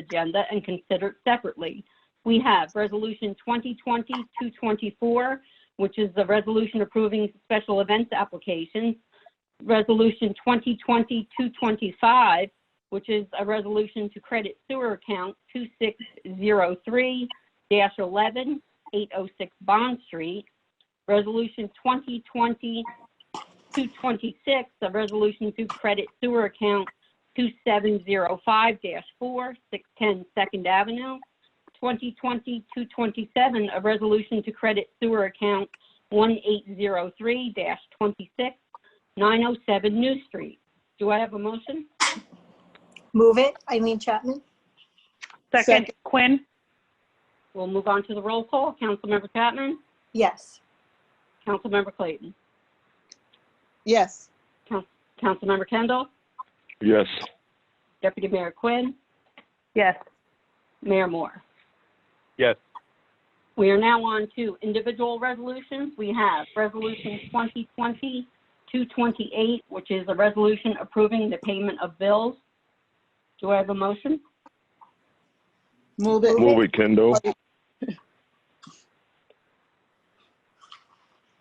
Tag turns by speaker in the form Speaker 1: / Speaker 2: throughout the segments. Speaker 1: agenda and considered separately. We have Resolution 2020-224, which is the resolution approving special events applications. Resolution 2020-225, which is a resolution to credit sewer account 2603-11, 806 Bond Street. Resolution 2020-226, a resolution to credit sewer account 2705-4, 610 Second Avenue. 2020-227, a resolution to credit sewer account 1803-26, 907 New Street. Do I have a motion?
Speaker 2: Move it, Eileen Chapman.
Speaker 3: Second,
Speaker 4: Second.
Speaker 3: Quinn.
Speaker 1: We'll move on to the roll call. Councilmember Chapman?
Speaker 2: Yes.
Speaker 1: Councilmember Clayton?
Speaker 4: Yes.
Speaker 1: Councilmember Kendall?
Speaker 5: Yes.
Speaker 1: Deputy Mayor Quinn?
Speaker 3: Yes.
Speaker 1: Mayor Moore?
Speaker 5: Yes.
Speaker 1: We are now on to individual resolutions. We have Resolution 2020-228, which is a resolution approving the payment of bills. Do I have a motion?
Speaker 4: Move it.
Speaker 5: Move it, Kendall.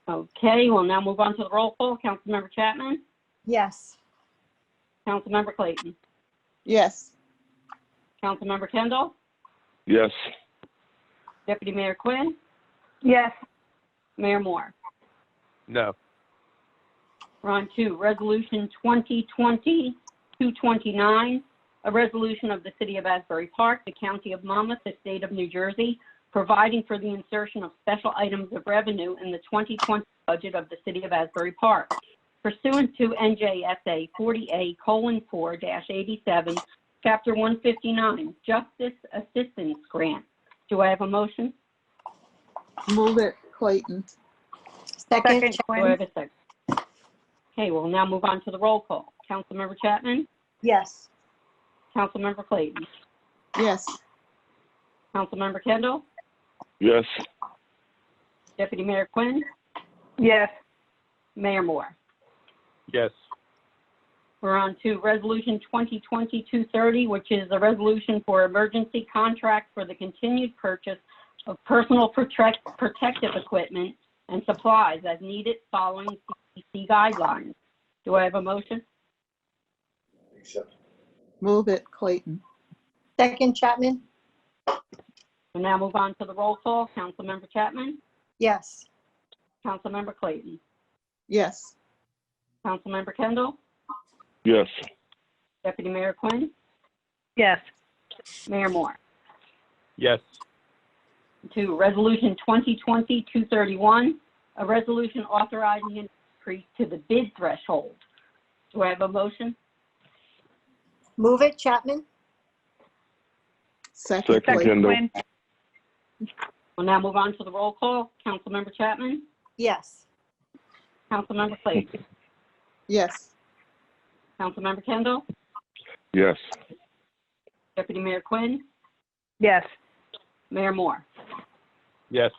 Speaker 1: Okay, we'll now move on to the roll call. Councilmember Chapman?
Speaker 2: Yes.
Speaker 1: Councilmember Clayton?
Speaker 4: Yes.
Speaker 1: Councilmember Kendall?
Speaker 5: Yes.
Speaker 1: Deputy Mayor Quinn?
Speaker 3: Yes.
Speaker 1: Mayor Moore?
Speaker 5: No.
Speaker 1: We're on to Resolution 2020-229, a resolution of the City of Asbury Park, the County of Monmouth, the State of New Jersey, providing for the insertion of special items of revenue in the 2020 budget of the City of Asbury Park. Pursuant to NJSA 40A:4-87, Chapter 159, Justice Assistance Grant. Do I have a motion?
Speaker 4: Move it, Clayton.
Speaker 2: Second, Chapman.
Speaker 3: Second,
Speaker 1: Do I
Speaker 3: Quinn.
Speaker 1: have a second? Okay, we'll now move on to the roll call. Councilmember Chapman?
Speaker 2: Yes.
Speaker 1: Councilmember Clayton.
Speaker 4: Yes.
Speaker 1: Councilmember Kendall.
Speaker 5: Yes.
Speaker 1: Deputy Mayor Quinn.
Speaker 3: Yes.
Speaker 1: Mayor Moore.
Speaker 5: Yes.
Speaker 1: We're on to Resolution 2020-230, which is a resolution for emergency contract for the continued purchase of personal protect- protective equipment and supplies as needed following CDC guidelines. Do I have a motion?
Speaker 4: Move it, Clayton.
Speaker 2: Second, Chapman.
Speaker 1: We'll now move on to the roll call. Councilmember Chapman.
Speaker 2: Yes.
Speaker 1: Councilmember Clayton.
Speaker 4: Yes.
Speaker 1: Councilmember Kendall.
Speaker 5: Yes.
Speaker 1: Deputy Mayor Quinn.
Speaker 3: Yes.
Speaker 1: Mayor Moore.
Speaker 5: Yes.
Speaker 1: to Resolution 2020-231, a resolution authorizing an increase to the bid threshold. Do I have a motion?
Speaker 2: Move it, Chapman.
Speaker 4: Second,
Speaker 5: Second,
Speaker 4: Clayton.
Speaker 3: Second,
Speaker 5: Kendall.
Speaker 3: Quinn.
Speaker 1: We'll now move on to the roll call. Councilmember Chapman?
Speaker 2: Yes.
Speaker 1: Councilmember Clayton?
Speaker 4: Yes.
Speaker 1: Councilmember Kendall?
Speaker 5: Yes.
Speaker 1: Deputy Mayor Quinn?
Speaker 3: Yes.
Speaker 1: Mayor Moore?
Speaker 5: Yes.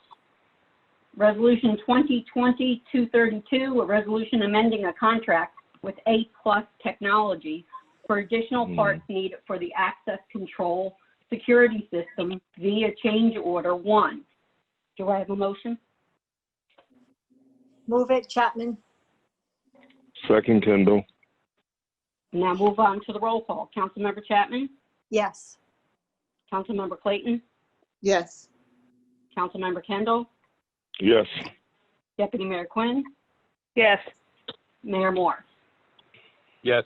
Speaker 1: Resolution 2020-232, a resolution amending a contract with A Plus Technology for additional
Speaker 5: Hmm.
Speaker 1: parts needed for the access control security system via change order one. Do I have a motion?
Speaker 2: Move it, Chapman.
Speaker 5: Second, Kendall.
Speaker 1: Now move on to the roll call. Councilmember Chapman?
Speaker 2: Yes.
Speaker 1: Councilmember Clayton?
Speaker 4: Yes.
Speaker 1: Councilmember Kendall?
Speaker 5: Yes.
Speaker 1: Deputy Mayor Quinn?
Speaker 3: Yes.
Speaker 1: Mayor Moore?
Speaker 5: Yes.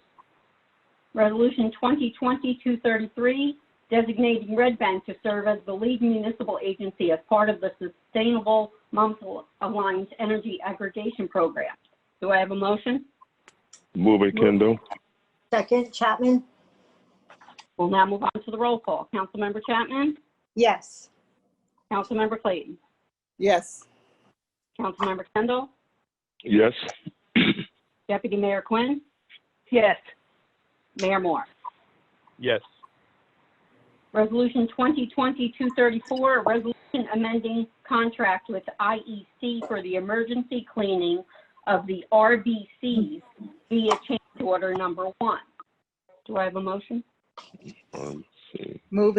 Speaker 1: Resolution 2020-233, designating Red Bank to serve as the lead municipal agency as part of the Sustainable Monthly Alliance Energy Aggregation Program. Do I have a motion?
Speaker 5: Move it, Kendall.
Speaker 2: Second, Chapman.
Speaker 1: We'll now move on to the roll call. Councilmember Chapman?
Speaker 2: Yes.
Speaker 1: Councilmember Clayton?
Speaker 4: Yes.
Speaker 1: Councilmember Kendall?
Speaker 5: Yes.
Speaker 1: Deputy Mayor Quinn?
Speaker 3: Yes.
Speaker 1: Mayor Moore?
Speaker 5: Yes.
Speaker 1: Resolution 2020-234, a resolution amending contract with IEC for the emergency cleaning of the RBCs via change order number one. Do I have a motion?
Speaker 5: Um, let's see.
Speaker 4: Move it.